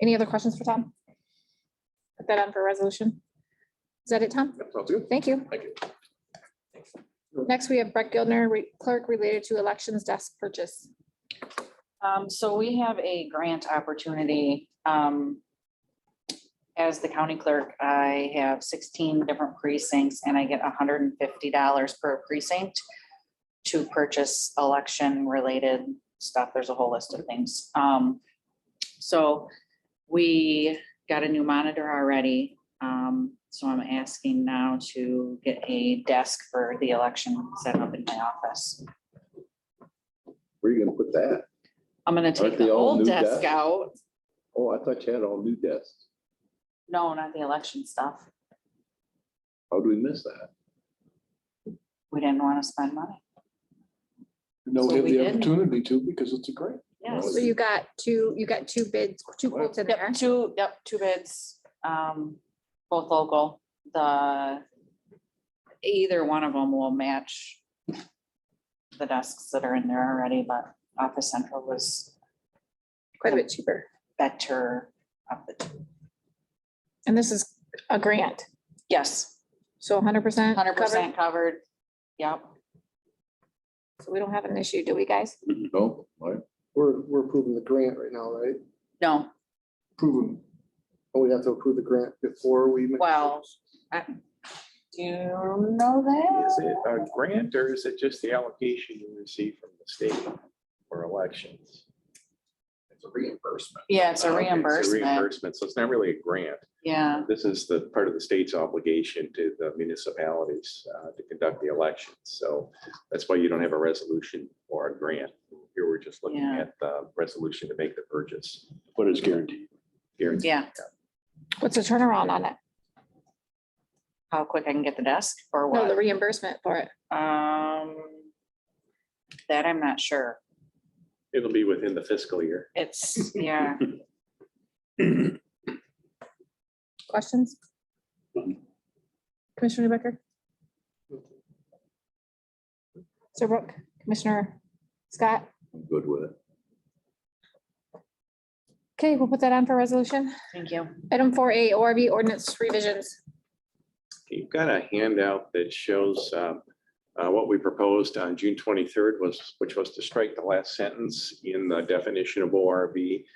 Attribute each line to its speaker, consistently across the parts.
Speaker 1: Any other questions for Tom? Put that on for resolution. Is that it, Tom?
Speaker 2: Yep, Sounds good.
Speaker 1: Thank you.
Speaker 2: Thank you.
Speaker 1: Next, we have Brett Gildner, re- clerk related to elections desk purchase.
Speaker 3: Um, so we have a grant opportunity, um. As the county clerk, I have sixteen different precincts and I get hundred and fifty dollars per precinct. To purchase election related stuff. There's a whole list of things. Um, so we got a new monitor already. Um, so I'm asking now to get a desk for the election set up in my office.
Speaker 2: Where are you gonna put that?
Speaker 3: I'm gonna take
Speaker 2: Aren't they
Speaker 3: the
Speaker 2: all new
Speaker 3: old desk
Speaker 2: desks?
Speaker 3: out
Speaker 2: Oh, I thought you had all new desks.
Speaker 3: No, not the election stuff.
Speaker 2: How do we miss that?
Speaker 3: We didn't want to spend money.
Speaker 4: No,
Speaker 3: So
Speaker 4: we have
Speaker 3: we
Speaker 4: the
Speaker 3: didn't.
Speaker 4: opportunity to because it's a grant.
Speaker 3: Yes.
Speaker 1: So you got two, you got two bids, two quotes in there.
Speaker 3: Yep, two, yep, two bids, um, both local, the, either one of them will match the desks that are in there already, but Office Central was
Speaker 1: Quite a bit cheaper.
Speaker 3: better of the, two.
Speaker 1: And this is a grant,
Speaker 3: yes,
Speaker 1: so hundred percent.
Speaker 3: hundred percent covered. Yep,
Speaker 1: So we don't have an issue, do we, guys?
Speaker 2: No, all right.
Speaker 5: We're, we're approving the grant right now, right?
Speaker 3: no,
Speaker 4: Proven.
Speaker 5: But we have to approve the grant before we. make-
Speaker 3: Well, do you know
Speaker 6: Is
Speaker 3: that?
Speaker 6: it uh, a grant or is it just the allocation you receive from the state for elections?
Speaker 2: It's a reimbursement.
Speaker 3: Yeah, it's a
Speaker 6: Okay,
Speaker 3: reimbursement,
Speaker 6: Reimbursement, so it's not really a grant.
Speaker 3: yeah.
Speaker 6: This is the part of the state's obligation to the municipalities uh, to conduct the elections. So that's why you don't have a resolution or a grant. Here, we're just looking
Speaker 3: Yeah.
Speaker 6: at the resolution to make the purchase.
Speaker 4: But it's guaranteed.
Speaker 6: Guaranteed.
Speaker 3: Yeah,
Speaker 1: What's the turnaround on it?
Speaker 3: how quick I can get the desk or
Speaker 1: No, the
Speaker 3: what?
Speaker 1: reimbursement for it.
Speaker 3: Um, that I'm not sure.
Speaker 6: It'll be within the fiscal year.
Speaker 3: It's, yeah,
Speaker 1: Questions? Commissioner Becker? Sir Brooke, Commissioner Scott?
Speaker 2: I'm good with it.
Speaker 1: Okay, we'll put that on for resolution.
Speaker 3: thank you.
Speaker 1: Item four A, ORB ordinance revisions.
Speaker 6: You've got a handout that shows um, uh, what we proposed on June 23rd was, which was to strike the last sentence in the definition of ORV.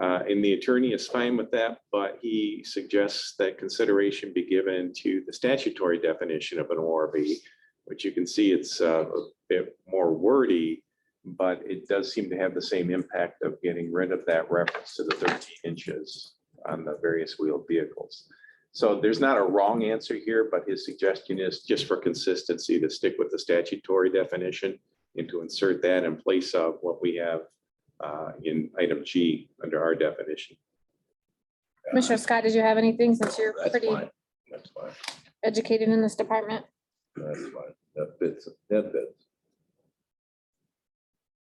Speaker 6: Uh, And the attorney is fine with that, but he suggests that consideration be given to the statutory definition of an ORV, which you can see it's uh, a bit more wordy, but it does seem to have the same impact of getting rid of that reference to the 13 inches on the various wheeled vehicles. So there's not a wrong answer here, but his suggestion is just for consistency to stick with the statutory definition and to insert that in place of what we have uh, in item G under our definition.
Speaker 1: Commissioner Scott, did you have anything since you're
Speaker 2: That's
Speaker 1: pretty
Speaker 2: fine. That's fine.
Speaker 1: educated in this department?
Speaker 2: That's fine. That fits, that fits.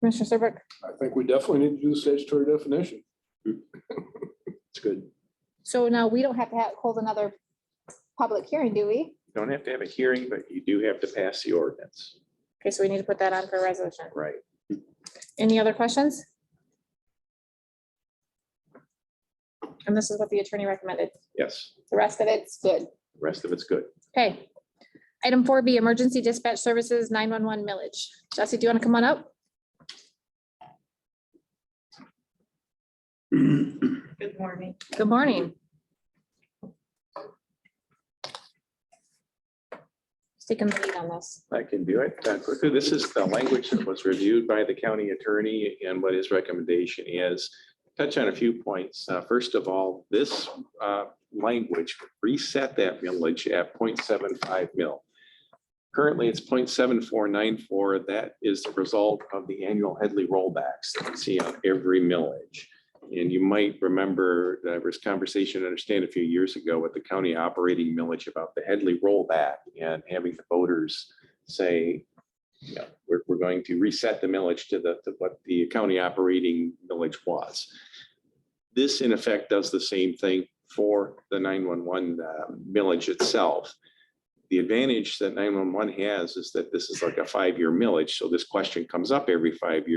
Speaker 1: Commissioner Serbrook,
Speaker 4: I think we definitely need to do the statutory definition.
Speaker 6: It's good.
Speaker 1: so now we don't have to have- hold another public hearing, do we?
Speaker 6: You Don't have to have a hearing, but you do have to pass the ordinance,
Speaker 1: Okay, so we need to put that on for resolution.
Speaker 6: right?
Speaker 1: Any other questions? And this is what the attorney recommended.
Speaker 6: Yes,
Speaker 1: The rest of it's good.
Speaker 6: The rest of it's good.
Speaker 1: Okay. Item four B, emergency dispatch services, nine-one-one millage. Jesse, do you want to come on up?
Speaker 3: Good morning.
Speaker 1: Good morning. Just Taking the lead on this.
Speaker 6: I can do it uh, quickly. This is the language that was reviewed by the county attorney and what his recommendation is. Touch on a few points. Uh, First of all, this uh, language reset that millage at 0.75 mil. Currently, it's 0.7494. That is the result of the annual Headley rollbacks that we see on every millage. And you might remember, there was conversation, I understand, a few years ago with the county operating millage about the Headley rollback and having the voters say, you know, we're, we're going to reset the millage to the, to what the county operating millage was. This in effect does the same thing for the nine-one-one uh, millage itself. The advantage that nine-one-one has is that this is like a five-year millage, so this question comes up every five years.